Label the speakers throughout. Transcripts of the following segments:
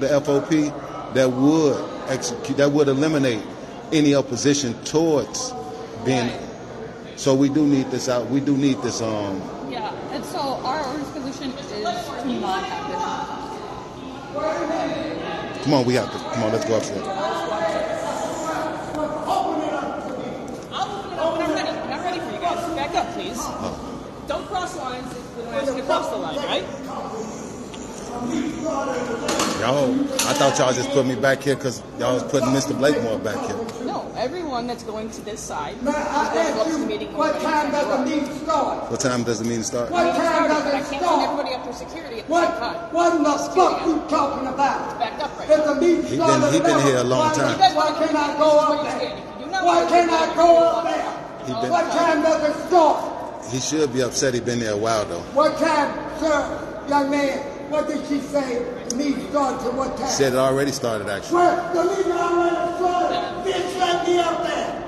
Speaker 1: the FOP that would execute, that would eliminate any opposition towards being. So we do need this out. We do need this. Um,
Speaker 2: Yeah, and so our order's position is to not have this.
Speaker 1: come on, we have to. Come on, let's go up there.
Speaker 3: I'll open it up when Oh, I'm ready. When I'm ready for you guys. Back up, please. Don't cross lines if we're asking to cross the line, right?
Speaker 1: Y'all, I thought y'all just put me back here because y'all was putting Mr. Blakemore back here.
Speaker 3: No, everyone that's going to this side is
Speaker 4: Now,
Speaker 3: going
Speaker 4: I
Speaker 3: to go up
Speaker 4: ask
Speaker 3: to the
Speaker 4: you,
Speaker 3: meeting.
Speaker 4: what time does the meeting start?
Speaker 1: What time does the meeting start?
Speaker 4: What time
Speaker 3: started,
Speaker 4: does
Speaker 3: but I
Speaker 4: it
Speaker 3: can't send
Speaker 4: start?
Speaker 3: everybody up through security at the same
Speaker 4: What,
Speaker 3: time.
Speaker 4: what in the fuck
Speaker 3: Security.
Speaker 4: you talking about?
Speaker 3: Back up right
Speaker 4: If the meeting
Speaker 1: He been-
Speaker 4: started
Speaker 1: he been
Speaker 4: eleven,
Speaker 1: here a long
Speaker 4: why-
Speaker 1: time.
Speaker 4: Why can't I go up there? Why can't I go up there?
Speaker 1: He been-
Speaker 4: What time does it start?
Speaker 1: He should be upset. He been there a while though.
Speaker 4: What time, sir, young man, what did she say, the meeting starts at what time?
Speaker 1: Said it already started actually.
Speaker 4: Where, the meeting already started, bitch, let me up there.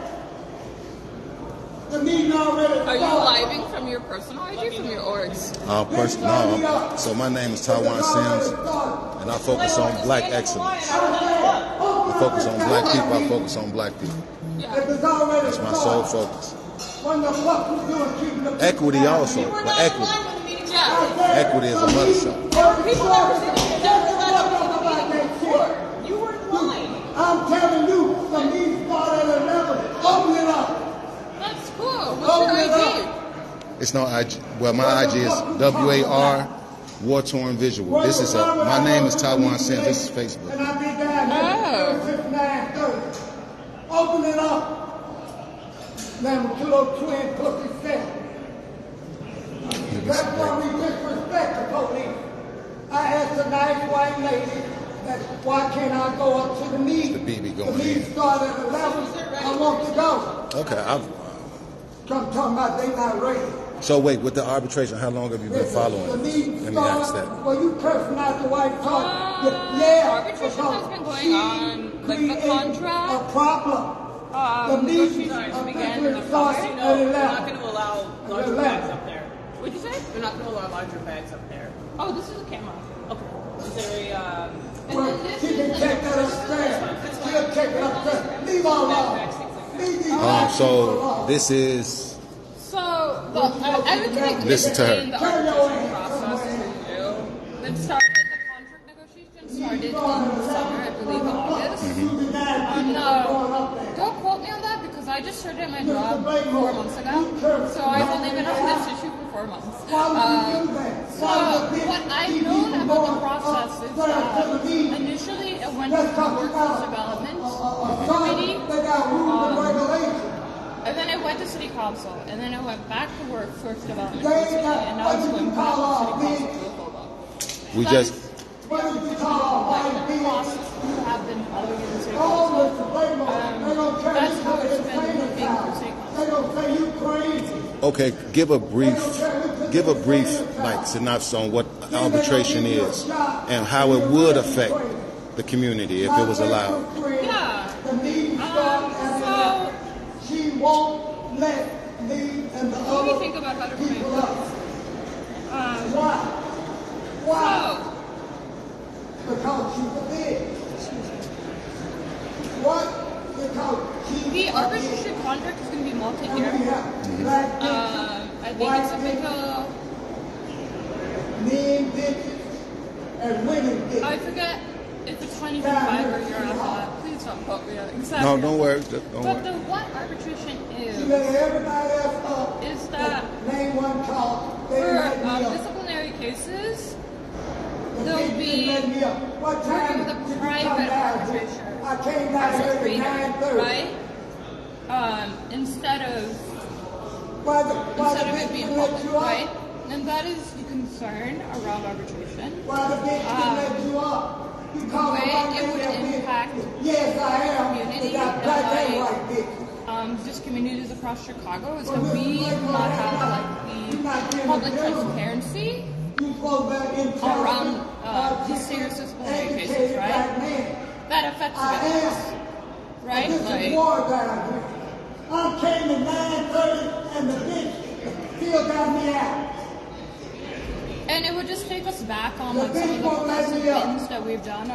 Speaker 4: The meeting already started.
Speaker 2: Are you living from your personal ID from your orgs?
Speaker 1: Uh, pers- no, I'm- so my name is Taiwan Sims, and I focus on black excellence. I focus on black people. I focus on black people.
Speaker 4: That's
Speaker 1: It's my sole focus.
Speaker 4: When the fuck you doing keeping the
Speaker 1: Equity
Speaker 4: people
Speaker 1: also,
Speaker 4: happy?
Speaker 1: but equity.
Speaker 2: Yeah.
Speaker 1: Equity is a mother
Speaker 4: People
Speaker 1: son.
Speaker 4: representing themselves about that shit.
Speaker 3: You were in line.
Speaker 4: I'm telling you, the meeting started at eleven. Open it up.
Speaker 2: That's cool.
Speaker 4: Open
Speaker 2: What's
Speaker 4: it
Speaker 2: your ID?
Speaker 4: up.
Speaker 1: It's not IG. Well, my IG is W A R War Torn Visual. This is a. My name is Taiwan Sims. This is
Speaker 4: And
Speaker 1: Facebook.
Speaker 4: I be down
Speaker 2: Oh.
Speaker 4: there since nine thirty. Open it up. Them
Speaker 1: oh
Speaker 4: little twin pussy set. That's why we disrespect the police. I asked a nice white lady that why can't I go up to the meeting?
Speaker 1: The BB going
Speaker 4: The meeting
Speaker 1: in.
Speaker 4: started at eleven. I want to go.
Speaker 1: Okay. I've,
Speaker 4: Come talking about they not ready.
Speaker 1: so wait, with the arbitration, how long have you been following?
Speaker 4: The meeting
Speaker 1: Let me
Speaker 4: started-
Speaker 1: ask that.
Speaker 4: Well, you cursing out the white talk.
Speaker 2: Uh,
Speaker 4: yeah.
Speaker 2: arbitration
Speaker 4: because
Speaker 2: has been going
Speaker 4: she
Speaker 2: on, like, the
Speaker 4: created
Speaker 2: contract.
Speaker 4: A problem.
Speaker 2: Um,
Speaker 4: the meeting
Speaker 2: negotiations
Speaker 4: of
Speaker 2: began
Speaker 4: February
Speaker 2: in the
Speaker 4: started
Speaker 2: fall.
Speaker 4: at
Speaker 3: No, we're not
Speaker 4: eleven.
Speaker 3: going to allow larger bags up there. What'd you say? We're not going to allow larger bags up there.
Speaker 2: Oh, this is a camera.
Speaker 3: Okay. Is there a, um,
Speaker 4: Well, she can take that upstairs. She'll take it upstairs. Leave
Speaker 3: oh,
Speaker 4: all alone. Leave these
Speaker 1: Um,
Speaker 4: black people
Speaker 1: so
Speaker 4: alone.
Speaker 1: this is.
Speaker 2: So, the, uh, I would like
Speaker 1: Listen to her.
Speaker 2: The arbitration process is new. That started, the contract negotiations started in the summer, I believe, August.
Speaker 1: Mm-hmm.
Speaker 2: Um, no, don't quote me on that because I just started my job four months ago. So I've only been on this issue for four months. Um, so what I've known about the process is that um, initially it went to the workforce development.
Speaker 4: Sorry, they got rules and regulations.
Speaker 2: And then it went to city council, and then it went back to work for development,
Speaker 4: They
Speaker 2: committee,
Speaker 4: got-
Speaker 2: and now it's
Speaker 4: what do
Speaker 2: going
Speaker 4: you
Speaker 2: back
Speaker 4: call
Speaker 2: to
Speaker 4: our
Speaker 2: city
Speaker 4: big-
Speaker 2: council. to approve it.
Speaker 1: We
Speaker 2: That
Speaker 1: just-
Speaker 2: is
Speaker 4: What do you call
Speaker 2: Like
Speaker 4: a white
Speaker 2: the
Speaker 4: being?
Speaker 2: process we have been following in city
Speaker 4: All
Speaker 2: council.
Speaker 4: this labor, they don't care
Speaker 2: that's
Speaker 4: you
Speaker 2: how
Speaker 4: put
Speaker 2: it's
Speaker 4: in
Speaker 2: been
Speaker 4: China
Speaker 2: moving
Speaker 4: town.
Speaker 2: for six.
Speaker 4: They don't say you crazy.
Speaker 1: Okay, give a brief, give a brief like synopsis on what arbitration is and how it would affect the community if it was allowed.
Speaker 2: Yeah.
Speaker 4: The meeting started
Speaker 2: Um,
Speaker 4: at eleven. She won't let me and the
Speaker 2: What do you
Speaker 4: other
Speaker 2: think about better
Speaker 4: people
Speaker 2: plan?
Speaker 4: up. Why? Why?
Speaker 2: So,
Speaker 4: Because she's a bitch. What? Because she's
Speaker 2: the
Speaker 4: a bitch.
Speaker 2: arbitration contract is going to be
Speaker 4: And we
Speaker 2: multi-year.
Speaker 4: have black bitches,
Speaker 2: Um, I think
Speaker 4: white
Speaker 2: it's like
Speaker 4: bitches,
Speaker 2: a,
Speaker 4: men bitches, and women
Speaker 2: I
Speaker 4: bitches.
Speaker 2: forget if it's 25 or you're on a hot. Please don't quote me on it. exactly.
Speaker 1: No, don't worry, don't
Speaker 2: But the
Speaker 1: worry.
Speaker 2: what arbitration
Speaker 4: She
Speaker 2: is,
Speaker 4: let everybody else up.
Speaker 2: is that
Speaker 4: Name one call. They
Speaker 2: for
Speaker 4: didn't let me
Speaker 2: um,
Speaker 4: up.
Speaker 2: disciplinary cases,
Speaker 4: The
Speaker 2: there'll
Speaker 4: bitch didn't
Speaker 2: be
Speaker 4: let me up. What time
Speaker 2: with a
Speaker 4: did you come
Speaker 2: private
Speaker 4: down here?
Speaker 2: arbitration.
Speaker 4: I came down here
Speaker 2: Reader,
Speaker 4: at 9:30.
Speaker 2: right? Um, instead of
Speaker 4: Why the, why the
Speaker 2: instead of
Speaker 4: bitch
Speaker 2: it being
Speaker 4: didn't let
Speaker 2: public,
Speaker 4: you
Speaker 2: right?
Speaker 4: up?
Speaker 2: And that is the concern around arbitration.
Speaker 4: Why the bitch didn't let you up? You called
Speaker 2: Ah. way
Speaker 4: a white
Speaker 2: it would
Speaker 4: lady a bitch.
Speaker 2: impact
Speaker 4: Yes, I am.
Speaker 2: community
Speaker 4: But I
Speaker 2: and
Speaker 4: black and
Speaker 2: like-
Speaker 4: white bitches.
Speaker 2: Um, just communities across Chicago is
Speaker 4: Well,
Speaker 2: that we
Speaker 4: look,
Speaker 2: do not
Speaker 4: look, look,
Speaker 2: have like
Speaker 4: you're not
Speaker 2: the
Speaker 4: getting
Speaker 2: public
Speaker 4: the general.
Speaker 2: transparency.
Speaker 4: You go back in time.
Speaker 2: Around, uh, the serious disciplinary cases,
Speaker 4: Educated
Speaker 2: right?
Speaker 4: black man.
Speaker 2: That affects
Speaker 4: I
Speaker 2: us,
Speaker 4: asked.
Speaker 2: right?
Speaker 4: This is
Speaker 2: Like,
Speaker 4: war down here. I came at nine thirty and the bitch still got me out.
Speaker 2: and it would just take us back on
Speaker 4: The
Speaker 2: like some of
Speaker 4: big
Speaker 2: the
Speaker 4: one let me
Speaker 2: progressive
Speaker 4: up.
Speaker 2: things that we've done